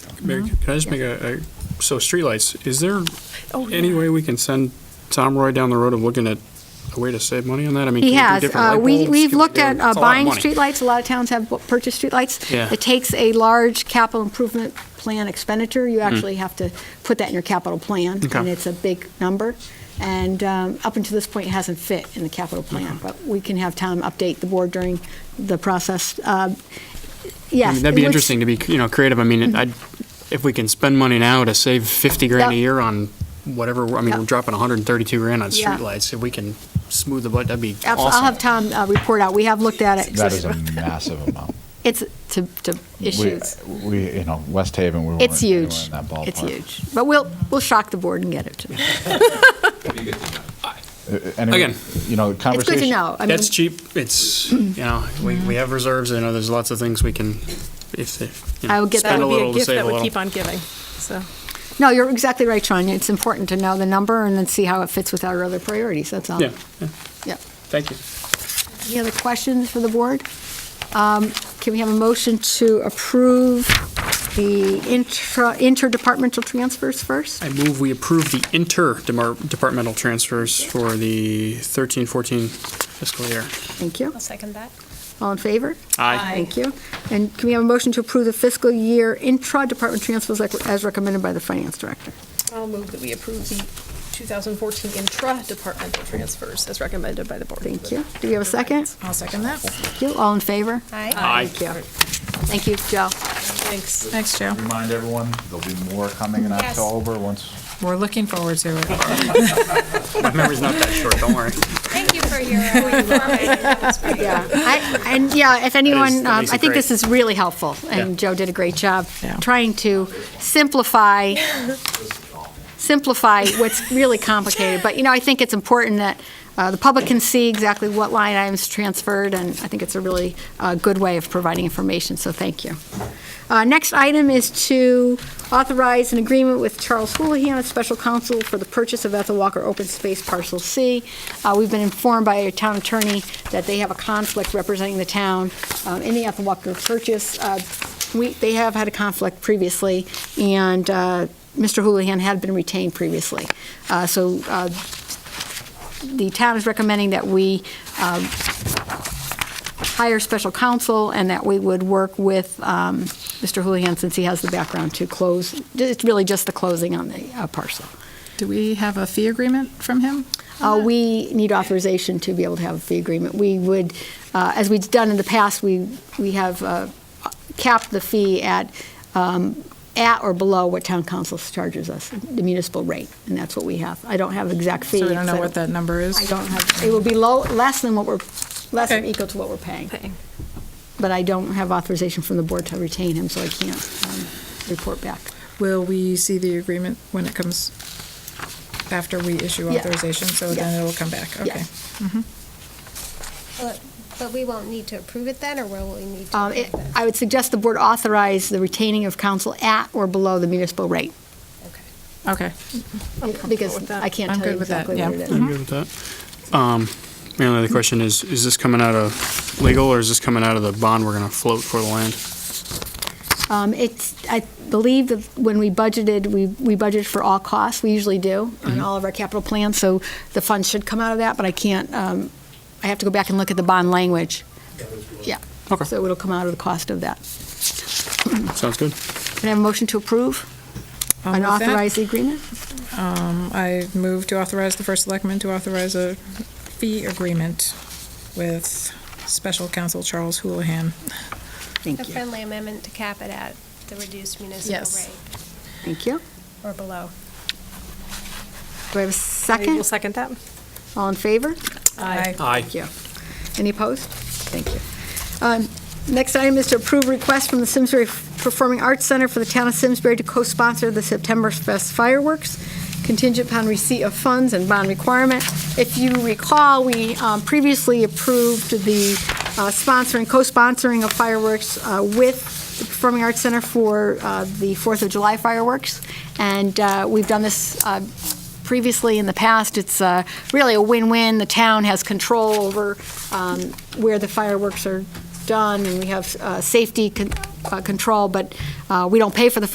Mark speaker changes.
Speaker 1: Mayor,
Speaker 2: Uh-huh.
Speaker 1: can I just make a, a- so streetlights, is there
Speaker 2: Oh,
Speaker 1: any way we can send Tom Roy down the road of looking at a way to save money on that? I mean,
Speaker 2: He
Speaker 1: can we
Speaker 2: has.
Speaker 1: do different
Speaker 2: Uh,
Speaker 1: light
Speaker 2: we,
Speaker 1: bulbs?
Speaker 2: we've
Speaker 1: Can we
Speaker 2: looked
Speaker 1: do-
Speaker 2: at uh,
Speaker 1: it's a lot of
Speaker 2: buying
Speaker 1: money.
Speaker 2: streetlights. A lot of towns have bu- purchased streetlights.
Speaker 1: Yeah.
Speaker 2: It takes a large capital improvement plan expenditure. You actually have to put that in your capital plan,
Speaker 1: Mm. Okay.
Speaker 2: and it's a big number. And um, up until this point, it hasn't fit in the capital plan, but we can have Tom update the board during the process. Uh,
Speaker 1: I
Speaker 2: Yes.
Speaker 1: mean, That'd be
Speaker 2: it looks- Mm-hmm.
Speaker 1: interesting to be, you know, creative. I mean, I'd, if we can spend money now to save 50 grand a
Speaker 2: Yep.
Speaker 1: year on whatever, I mean,
Speaker 2: Yep.
Speaker 1: we're dropping 132 grand on
Speaker 2: Yeah.
Speaker 1: streetlights. If we can smooth the budget, that'd be
Speaker 2: Abs- I'll have
Speaker 1: awesome.
Speaker 2: Tom uh, report out. We have looked at it.
Speaker 3: That is a massive amount.
Speaker 2: It's to, to issues.
Speaker 3: We, we, you know, West Haven, we weren't
Speaker 2: It's
Speaker 3: anywhere
Speaker 2: huge.
Speaker 3: in that ballpark.
Speaker 2: It's huge. But we'll, we'll shock the board and get it to them.
Speaker 3: huge. Uh, Anyway,
Speaker 1: Again.
Speaker 3: you know, the
Speaker 2: It's good
Speaker 3: conversation.
Speaker 2: to know. I mean, Mm-hmm.
Speaker 1: That's cheap. It's, you know, we, we have reserves. I know there's lots of things we can, if, if, you
Speaker 2: I
Speaker 1: know,
Speaker 2: would get that.
Speaker 1: spend a
Speaker 2: That would
Speaker 1: little to save a
Speaker 4: That would
Speaker 1: little.
Speaker 4: keep on giving, so.
Speaker 2: No, you're exactly right, Sean. It's important to know the number and then see how it fits with our other priorities, that's all.
Speaker 1: Yeah, yeah.
Speaker 2: Yeah.
Speaker 1: Thank you.
Speaker 2: Any other questions for the board? Um, Can we have a motion to approve the intra interdepartmental transfers first?
Speaker 1: I move we approve the interdepartmental transfers for the 13, 14 fiscal year.
Speaker 2: Thank you.
Speaker 4: second that.
Speaker 2: All in favor?
Speaker 1: Aye.
Speaker 2: Thank you. And can we have a motion to approve the fiscal year intra-department transfers like- as recommended by the finance director?
Speaker 4: I'll move that we approve the 2014 intra-departmental transfers as recommended by the board.
Speaker 2: Thank you. Do we have a second?
Speaker 4: I'll second that.
Speaker 2: Thank you. All in favor?
Speaker 1: Aye.
Speaker 2: Thank you. Thank you, Joe.
Speaker 4: Thanks. Thanks, Joe.
Speaker 3: Remind everyone, there'll be more coming in
Speaker 4: Yes.
Speaker 3: October once
Speaker 5: We're looking forward to it.
Speaker 1: My memory's not that short, don't worry.
Speaker 6: Thank you for your information.
Speaker 2: Yeah, I- and yeah, if anyone,
Speaker 1: that
Speaker 2: um,
Speaker 1: makes
Speaker 2: I
Speaker 1: it great.
Speaker 2: think this is really helpful, and
Speaker 1: Yeah.
Speaker 2: Joe did a great job
Speaker 5: Yeah.
Speaker 2: trying to simplify, simplify what's really complicated. But, you know, I think it's important that uh, the public can see exactly what line items transferred, and I think it's a really uh, good way of providing information, so thank you. Uh, Next item is to authorize an agreement with Charles Houlihan, a special counsel, for the purchase of Ethel Walker Open Space Parcel C. Uh, We've been informed by our town attorney that they have a conflict representing the town uh, in the Ethel Walker purchase. Uh, We, they have had a conflict previously, and uh, Mr. Houlihan had been retained previously. Uh, So uh, the town is recommending that we um, hire special counsel and that we would work with um, Mr. Houlihan, since he has the background, to close, it's really just the closing on the uh, parcel.
Speaker 5: Do we have a fee agreement from him?
Speaker 2: Uh, We need authorization to be able to have a fee agreement. We would, uh, as we've done in the past, we, we have uh, capped the fee at, um, at or below what town council charges us, the municipal rate, and that's what we have. I don't have the exact fee.
Speaker 5: So we don't know
Speaker 2: because I
Speaker 5: what that number is?
Speaker 2: I don't have, it will be low, less than what we're, less than
Speaker 5: Okay.
Speaker 2: equal to what we're paying. But I don't have authorization from the board to retain him, so I can't um, report back.
Speaker 5: Will we see the agreement when it comes, after we issue
Speaker 2: Yeah.
Speaker 5: authorization, so
Speaker 2: Yeah.
Speaker 5: then it'll come back? Okay.
Speaker 2: Yes.
Speaker 6: But but we won't need to approve it then, or will we need to
Speaker 2: Um, it-
Speaker 6: approve it?
Speaker 2: I would suggest the board authorize the retaining of counsel at or below the municipal rate,
Speaker 6: Okay.
Speaker 5: Okay.
Speaker 2: because I can't
Speaker 5: I'm
Speaker 2: tell you
Speaker 5: good with that,
Speaker 2: exactly what it
Speaker 5: yeah. Mm-hmm.
Speaker 2: is.
Speaker 1: I'm good with that. Um, My only other question is, is this coming out of legal or is this coming out of the bond we're going to float for the land?
Speaker 2: Um, It's, I believe that when we budgeted, we, we budgeted for all costs, we usually do, on all of our capital plans, so the funds should come out of that, but I can't, um, I have to go back and look at the bond language. Yeah.
Speaker 1: Okay.
Speaker 2: So it'll come out of the cost of that.
Speaker 1: Sounds good.
Speaker 2: Can I have a motion to approve
Speaker 5: I'll
Speaker 2: and
Speaker 5: move that.
Speaker 2: authorize the agreement?
Speaker 5: Um, I move to authorize the first selectman to authorize a fee agreement with special counsel Charles Houlihan.
Speaker 6: A
Speaker 2: Thank you.
Speaker 6: friendly amendment to cap it at the reduced municipal
Speaker 5: Yes.
Speaker 6: rate
Speaker 2: Thank you.
Speaker 6: or below.
Speaker 2: Do I have a
Speaker 4: We'll
Speaker 2: second?
Speaker 4: second that.
Speaker 2: All in favor?
Speaker 5: Aye.
Speaker 1: Aye.
Speaker 2: Thank you. Any opposed? Thank you. Um, Next item is to approve request from the Simsbury Performing Arts Center for the town of Simsbury to co-sponsor the September Fest fireworks contingent upon receipt of funds and bond requirement. If you recall, we um, previously approved the uh, sponsoring, co-sponsoring of fireworks uh, with the Performing Arts Center for uh, the Fourth of July fireworks, and uh, we've done this uh, previously in the past. It's uh, really a win-win. The town has control over um, where the fireworks are done, and we have uh, safety con- uh, control, but uh, we don't pay for the